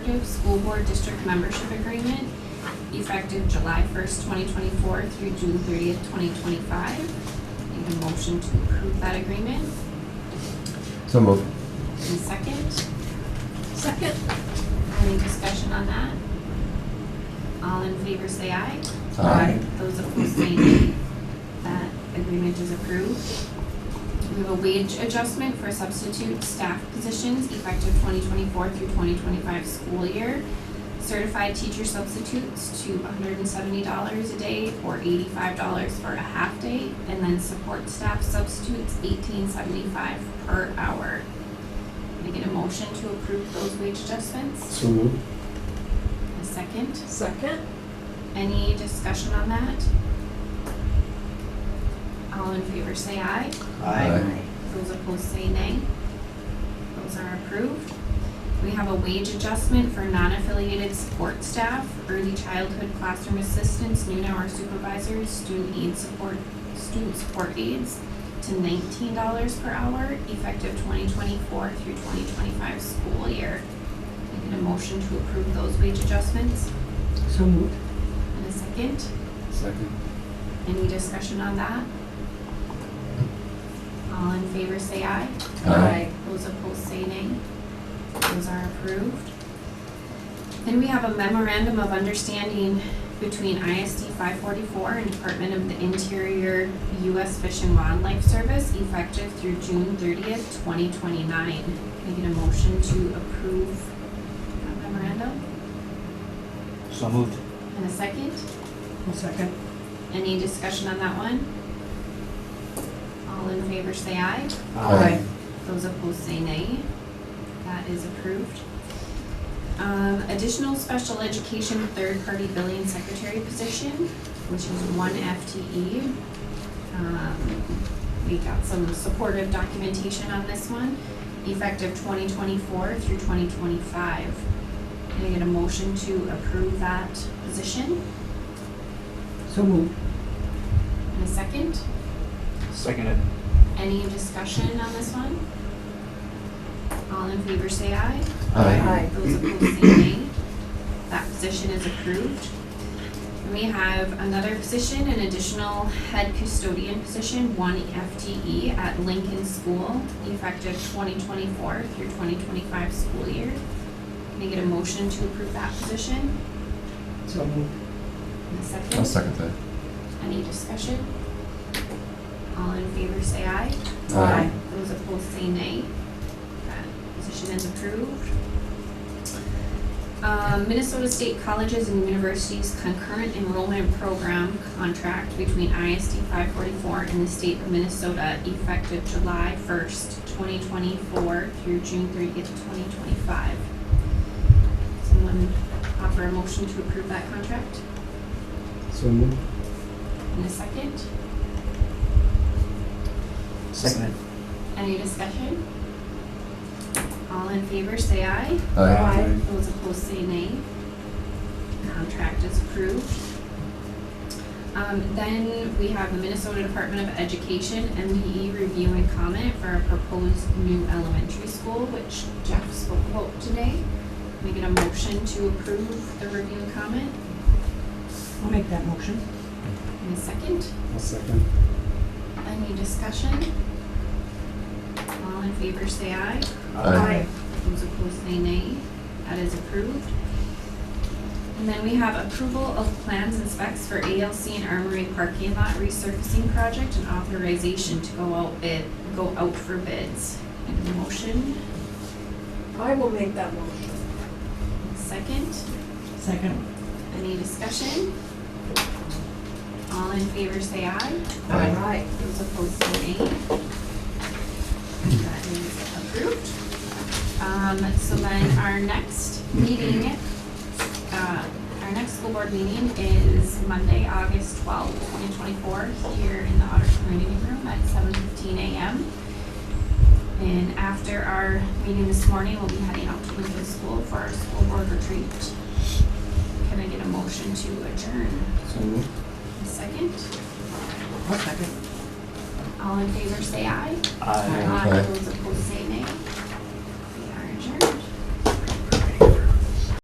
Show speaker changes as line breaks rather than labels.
Cooperative School Board District Membership Agreement effective July first, twenty twenty-four through June thirtieth, twenty twenty-five. Need a motion to approve that agreement
So moved.
and second.
Second.
Any discussion on that? All in favor, say aye.
Aye.
Those opposed, say nay. That agreement is approved. We have a wage adjustment for substitute staff positions effective twenty twenty-four through twenty twenty-five school year. Certified teacher substitutes to hundred and seventy dollars a day or eighty-five dollars for a half day. And then support staff substitutes eighteen seventy-five per hour. Can I get a motion to approve those wage adjustments?
So moved.
A second?
Second.
Any discussion on that? All in favor say aye.
Aye.
Those opposed say nay. Those are approved. We have a wage adjustment for non-affiliated support staff, early childhood classroom assistants, noon hour supervisors, student aid support, student support aides to nineteen dollars per hour effective twenty twenty-four through twenty twenty-five school year. Can I get a motion to approve those wage adjustments?
So moved.
And a second?
Second.
Any discussion on that? All in favor say aye. Those opposed say nay. Those are approved. Then we have a memorandum of understanding between ISD five forty-four and Department of the Interior U.S. Fish and Wildlife Service effective through June thirtieth, twenty twenty-nine. Can I get a motion to approve that memorandum?
So moved.
And a second?
I'll second.
Any discussion on that one? All in favor say aye.
Aye.
Those opposed say nay. That is approved. Um, additional special education third-party billing secretary position, which is one FTE. Um, we got some supportive documentation on this one, effective twenty twenty-four through twenty twenty-five. Can I get a motion to approve that position?
So moved.
And a second?
Seconded.
Any discussion on this one? All in favor say aye.
Aye.
Those opposed say nay. That position is approved. And We have another position, an additional head custodian position, one FTE at Lincoln School, effective twenty twenty-four through twenty twenty-five school year. Can I get a motion to approve that position?
So moved.
And a second?
I'll second that.
Any discussion? All in favor say aye. Those opposed say nay. That position is approved. Um, Minnesota State Colleges and Universities Concurrent Enrollment Program Contract between ISD five forty-four and the State of Minnesota effective July first, twenty twenty-four through June thirtieth, twenty twenty-five. Someone offer a motion to approve that contract
So moved.
in a second?
Seconded.
Any discussion? All in favor, say aye.
Aye.
Those opposed say nay. Contract is approved. Um, then we have the Minnesota Department of Education, MDE review and comment for a proposed new elementary school, which Jeff spoke about today. Can we get a motion to approve the review and comment
I'll make that motion.
in a second?
I'll second.
Any discussion? All in favor, say aye.
Aye.
Those opposed say nay. That is approved. And then we have approval of plans and specs for ALC and Armory parking lot resurfacing project and authorization to go out bid, go out for bids. And a motion,
I will make that motion.
second,
Second.
any discussion? All in favor say aye.
Aye.
Those opposed say nay. That is approved. Um, so then our next meeting, uh, our next school board meeting is Monday, August twelfth, twenty twenty-four, here in the Otter Community Room at seven fifteen AM. And after our meeting this morning, we'll be heading out to Lincoln School for our school board retreat. Can I get a motion to adjourn?
So moved.
A second?
I'll second.
All in favor, say aye.
Aye.
Those opposed, say nay.